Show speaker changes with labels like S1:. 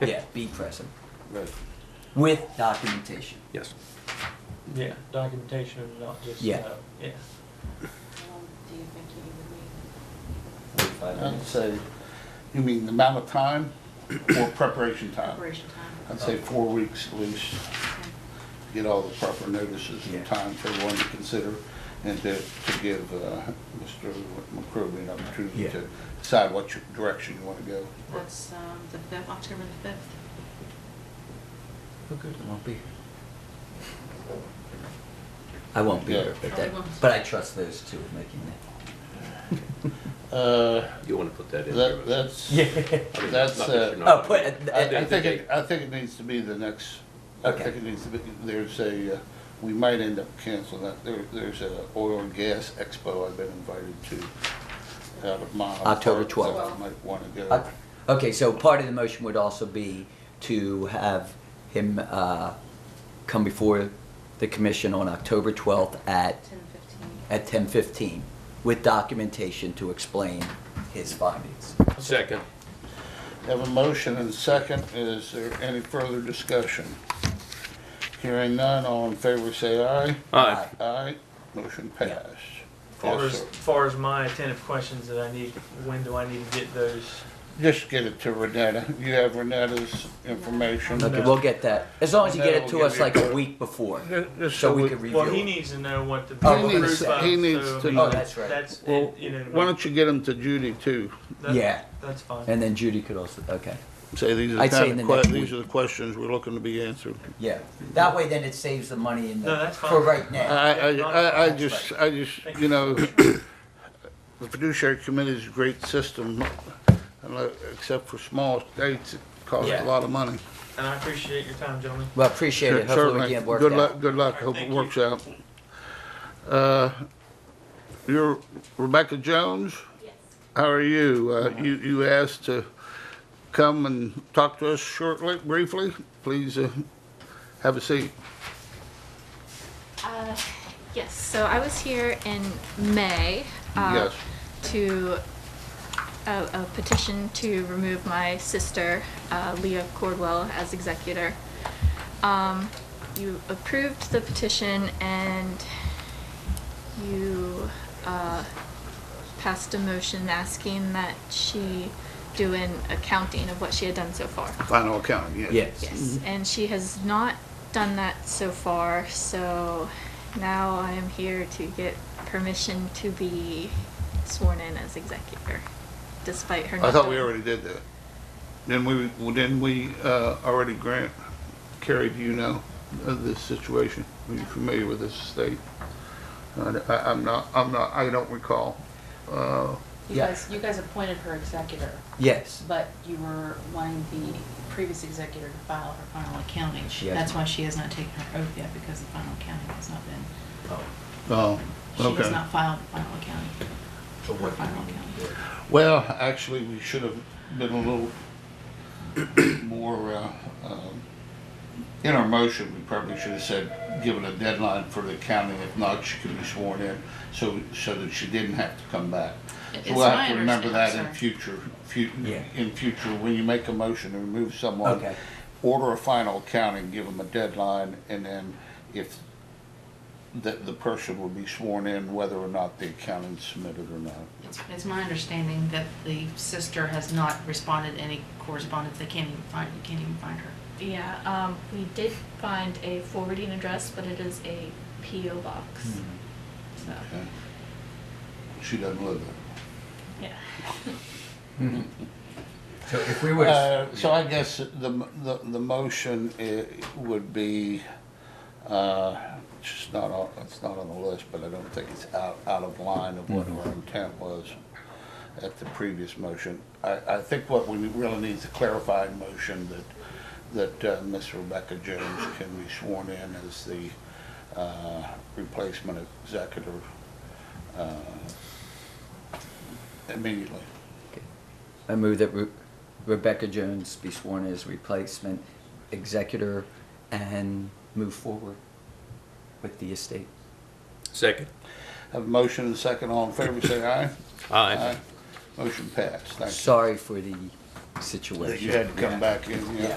S1: Yeah, be present
S2: Right.
S1: with documentation.
S2: Yes.
S3: Yeah, documentation and not just,
S1: Yeah.
S3: uh, yeah.
S4: Um, Do you think you would need?
S3: Um,
S5: I'd say, you mean the amount of time or preparation time?
S4: Preparation time.
S5: I'd say four weeks at least,
S4: Okay.
S5: get all the proper notices
S1: Yeah.
S5: and time for everyone to consider and to, to give uh, Mr. McCrory an opportunity
S1: Yeah.
S5: to decide what your- direction you want to go.
S4: That's um, the fifth, October the fifth.
S3: Okay.
S1: I won't be here. I won't be
S5: Yeah.
S1: here, but
S4: Oh,
S1: that,
S4: you won't.
S1: but I trust those two of making that.
S5: Uh,
S2: You want to put that in?
S5: That,
S2: there.
S5: that's,
S3: Yeah.
S2: I mean,
S5: that's,
S2: not that
S5: uh,
S2: you're
S1: Oh,
S2: not-
S1: put, it-
S5: I
S2: do
S5: I
S1: it-
S5: think,
S2: think
S5: it I think it needs to be the next, I
S1: Okay.
S5: think it needs to be, there's a, uh, we might end up canceling that. There, there's a oil and gas expo I've been invited to out of Miles.
S1: October
S5: Park, so
S4: 12th.
S5: I might want to
S1: uh,
S5: go.
S1: okay, so part of the motion would also be to have him, uh, come before the commission on October twelfth at,
S4: Ten fifteen.
S1: at ten fifteen with documentation to explain his findings.
S2: Second.
S5: Have a motion and a second. Is there any further discussion? Hearing none, all in favor say aye.
S2: Aye.
S5: Aye, motion
S1: Yeah.
S5: passed.
S3: Far
S5: Yes,
S3: as,
S5: sir.
S3: far as my attentive questions that I need, when do I need to get those?
S5: Just get it to Renetta. You have Renetta's information.
S1: Okay, we'll get that, as long as you get it to us like a week before,
S5: Just
S1: so we can review
S3: Well, he
S1: it.
S3: needs to know what the
S1: Oh,
S3: proof
S1: he
S5: needs-
S3: of, so.
S5: he needs to
S3: I mean,
S5: know.
S1: Oh, that's right.
S3: That's,
S5: Well,
S3: you know.
S5: why don't you get them to Judy too?
S3: that-
S1: Yeah.
S3: That's fine.
S1: And then Judy could also, okay.
S5: Say these are the
S1: I'd say in
S5: kind of
S1: the
S5: que-
S1: next
S5: these
S1: week.
S5: are the questions we're looking to be answered.
S1: Yeah, that way then it saves the money in the,
S3: No, that's fine.
S1: for right
S5: I,
S1: now.
S5: I, I, I just, I just, you know, the fiduciary committee is a great system, and, uh, except for small states, it costs
S1: Yeah.
S5: a lot of money.
S3: And I appreciate your time, gentlemen.
S1: Well, appreciate it, hopefully we
S5: Certainly.
S1: can work
S5: Good luck,
S1: out.
S5: good luck, hope it
S3: Thank you.
S5: works out. Uh, You're Rebecca Jones?
S4: Yes.
S5: How are you? Uh, You, you asked to come and talk to us shortly, briefly. Please uh, have a seat.
S6: Uh, Yes, so I was here in May. uh,
S5: Yes.
S6: To a a petition to remove my sister, uh, Leah Cordwell, as executor. Um, You approved the petition and you uh, passed a motion asking that she do an accounting of what she had done so far.
S5: Final accounting, yes.
S1: Yes.
S6: Yes, and she has not done that so far, so now I am here to get permission to be sworn in as executor, despite her.
S5: I
S6: not
S5: thought we
S6: doing-
S5: already did that. Then we, well, didn't we uh, already grant, Carrie, do you know of this situation? Are you familiar with this state? Uh, I- I'm not, I'm not, I don't recall. Uh,
S4: You
S1: Yeah.
S4: guys, you guys appointed her executor,
S1: Yes,
S4: but you were wanting the previous executor to file her final accounting.
S1: She hasn't.
S4: That's why she has not taken her oath yet, because the final accounting has not been,
S5: Oh,
S4: she has
S5: okay.
S4: not filed the final accounting. Her final accounting.
S5: Well, actually, we should have been a little more, uh, um, in our motion, we probably should have said, given a deadline for the accounting. If not, she could be sworn in, so, so that she didn't have to come back.
S4: It-
S5: So
S4: it's
S5: We'll
S4: my
S5: have to remember that
S4: understanding,
S5: in
S4: sir.
S5: future, fu-
S1: Yeah.
S5: in future, when you make a motion to remove someone,
S1: Okay.
S5: order a final accounting, give them a deadline, and then if the, the person will be sworn in, whether or not the accounting submitted or not.
S4: It's, it's my understanding that the sister has not responded to any correspondence, they can't even find, you can't even find her.
S6: Yeah, um, we did find a forwarding address, but it is a PO
S1: Hmm.
S6: box, so,
S5: Okay. She doesn't live there.
S6: yeah.
S1: So if we were,
S5: Uh,
S1: to-
S5: So I guess the, the, the motion i- would be, uh, it's just not on, it's not on the list, but I don't think it's out, out of line of what our intent was at the previous motion. I, I think what we really need is a clarifying motion that, that uh, Ms. Rebecca Jones can be sworn in as the uh, replacement executor uh, immediately.
S1: I move that Re- Rebecca Jones be sworn as replacement executor and move forward with the estate.
S2: Second.
S5: Have a motion and a second, all in favor, say aye.
S2: Aye.
S5: Motion passed, thank you.
S1: Sorry for the situation.
S5: that you had to
S1: Yeah.
S5: come back in, yeah.